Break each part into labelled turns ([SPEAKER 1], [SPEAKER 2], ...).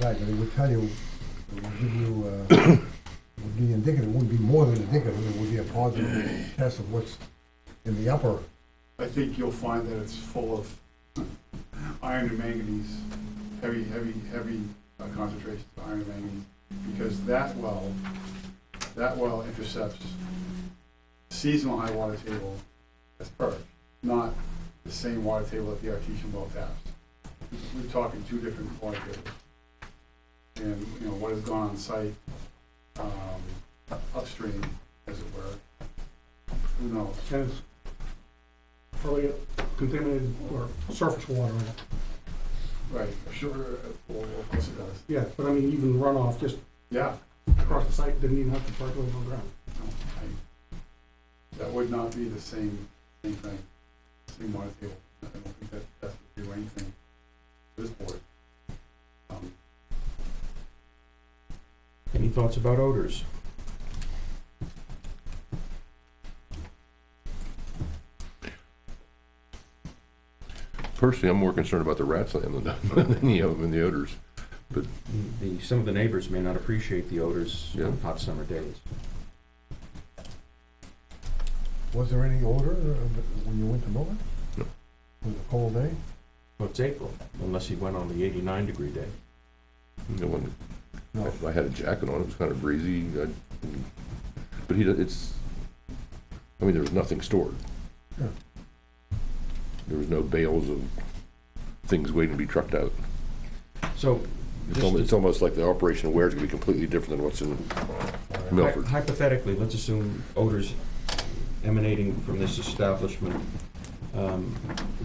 [SPEAKER 1] Right, but it would tell you, it would give you, uh, it would be indicative, it wouldn't be more than indicative, it would be a positive test of what's in the upper.
[SPEAKER 2] I think you'll find that it's full of iron and manganese, heavy, heavy, heavy uh, concentrations of iron and manganese, because that well, that well intercepts seasonal high water table as per, not the same water table that the artesian well taps. We're talking two different water tables. And, you know, what has gone on site, um, upstream, as it were, who knows?
[SPEAKER 3] and it's probably got contaminated or surface water in it.
[SPEAKER 2] Right, sure, well, uh, of course it does.
[SPEAKER 3] Yeah, but I mean, even runoff just
[SPEAKER 2] Yeah,
[SPEAKER 3] across the site didn't even have to percolate underground.
[SPEAKER 2] no, I- that would not be the same, same thing, same water table. I don't think that, that would do anything to this board. Um,
[SPEAKER 4] Any thoughts about odors?
[SPEAKER 5] Personally, I'm more concerned about the rats than the, than any of them in the odors.
[SPEAKER 4] The, some of the neighbors may not appreciate the odors
[SPEAKER 5] Mm. Yeah.
[SPEAKER 4] on hot summer days.
[SPEAKER 1] Was there any odor uh, when you went to mow it?
[SPEAKER 5] No.
[SPEAKER 1] Was it a cold day?
[SPEAKER 4] Well, it's April, unless he went on the eighty-nine degree day.
[SPEAKER 5] No one,
[SPEAKER 1] No.
[SPEAKER 5] I had a jacket on, it was kind of breezy, I, but he, it's, I mean, there was nothing stored.
[SPEAKER 1] Yeah.
[SPEAKER 5] There was no bales of things waiting to be trucked out.
[SPEAKER 4] So,
[SPEAKER 5] It's
[SPEAKER 4] Just
[SPEAKER 5] almo-
[SPEAKER 4] to-
[SPEAKER 5] It's almost like the operation of where is gonna be completely different than what's in Milford.
[SPEAKER 4] hy- hypothetically, let's assume odors emanating from this establishment um,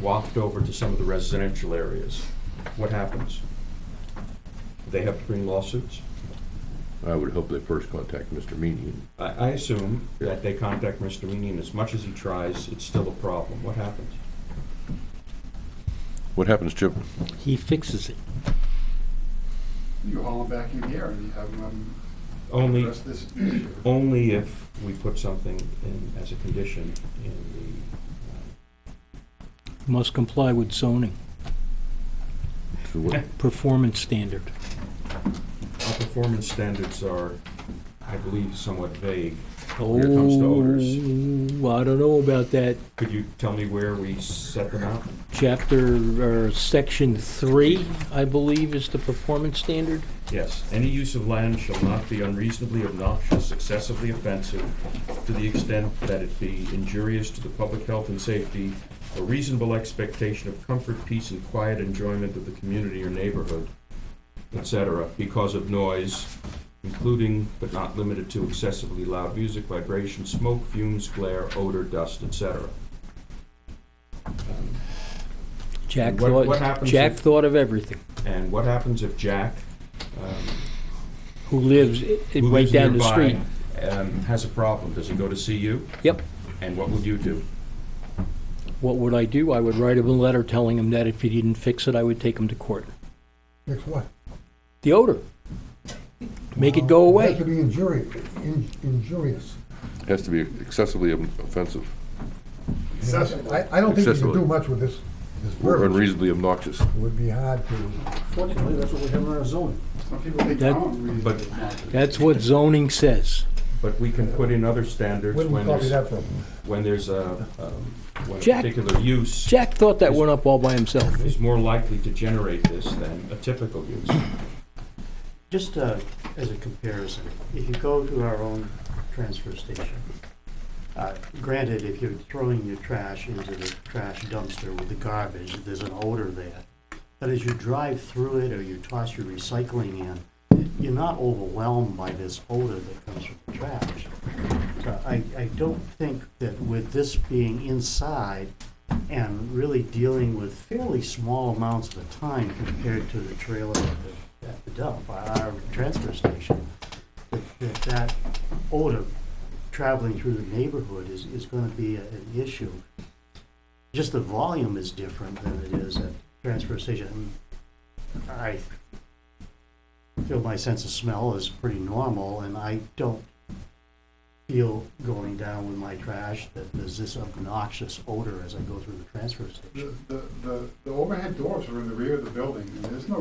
[SPEAKER 4] waft over to some of the residential areas. What happens? They have to bring lawsuits?
[SPEAKER 5] I would hope they first contact Mr. Meany.
[SPEAKER 4] I, I assume that they contact Mr. Meany, and as much as he tries, it's still a problem. What happens?
[SPEAKER 5] What happens, Chip?
[SPEAKER 6] He fixes it.
[SPEAKER 2] You haul them back in here and you have them
[SPEAKER 4] Only,
[SPEAKER 2] address this issue.
[SPEAKER 4] only if we put something in, as a condition in
[SPEAKER 6] Must comply with zoning,
[SPEAKER 5] So what-
[SPEAKER 6] performance standard.
[SPEAKER 4] the, our performance standards are, I believe, somewhat vague.
[SPEAKER 6] Oh,
[SPEAKER 4] it comes to odors.
[SPEAKER 6] I don't know about that.
[SPEAKER 4] Could you tell me where we set them out?
[SPEAKER 6] Chapter, or section three, I believe, is the performance standard.
[SPEAKER 4] Yes, any use of land shall not be unreasonably obnoxious, excessively offensive, to the extent that it be injurious to the public health and safety, a reasonable expectation of comfort, peace, and quiet enjoyment of the community or neighborhood, etc., because of noise, including but not limited to excessively loud music, vibration, smoke, fumes, glare, odor, dust, etc.
[SPEAKER 6] Jack
[SPEAKER 4] And what- what
[SPEAKER 6] thought,
[SPEAKER 4] happens
[SPEAKER 6] Jack
[SPEAKER 4] if-
[SPEAKER 6] thought of everything.
[SPEAKER 4] And what happens if Jack, um,
[SPEAKER 6] Who lives i- i-
[SPEAKER 4] who
[SPEAKER 6] right
[SPEAKER 4] lives
[SPEAKER 6] down the
[SPEAKER 4] nearby,
[SPEAKER 6] street.
[SPEAKER 4] um, has a problem, does he go to see you?
[SPEAKER 6] Yep.
[SPEAKER 4] And what would you do?
[SPEAKER 6] What would I do? I would write him a letter telling him that if he didn't fix it, I would take him to court.
[SPEAKER 1] Fix what?
[SPEAKER 6] The odor. Make it go
[SPEAKER 1] Well,
[SPEAKER 6] away.
[SPEAKER 1] It has to be injurious, in- injurious.
[SPEAKER 5] It has to be excessively offensive
[SPEAKER 2] Accessible.
[SPEAKER 1] I, I don't think you can
[SPEAKER 5] Accessible.
[SPEAKER 1] do much with this, this
[SPEAKER 5] or
[SPEAKER 1] verbiage.
[SPEAKER 5] unreasonably obnoxious.
[SPEAKER 1] It would be hard to.
[SPEAKER 3] Fortunately, that's what we have in our zoning.
[SPEAKER 2] Some people think
[SPEAKER 6] That-
[SPEAKER 2] town reason
[SPEAKER 4] but-
[SPEAKER 2] is not to-
[SPEAKER 6] That's what zoning says.
[SPEAKER 4] But we can put in other standards
[SPEAKER 1] Where do we
[SPEAKER 4] when
[SPEAKER 1] copy
[SPEAKER 4] there's,
[SPEAKER 1] that from?
[SPEAKER 4] when there's a, um, when a
[SPEAKER 6] Jack-
[SPEAKER 4] particular use
[SPEAKER 6] Jack thought that went up all by himself.
[SPEAKER 4] is more likely to generate this than a typical use.
[SPEAKER 7] Just uh, as a comparison, if you go to our own transfer station, uh, granted, if you're throwing your trash into the trash dumpster with the garbage, there's an odor there. But as you drive through it or you toss your recycling in, you're not overwhelmed by this odor that comes from the trash. So I, I don't think that with this being inside and really dealing with fairly small amounts at a time compared to the trailer at the, at the dump, our transfer station, that- that that odor traveling through the neighborhood is, is gonna be a- an issue. Just the volume is different than it is at transfer station. I feel my sense of smell is pretty normal, and I don't feel going down with my trash that there's this obnoxious odor as I go through the transfer station.
[SPEAKER 2] The, the, the- the overhead doors are in the rear of the building and there's no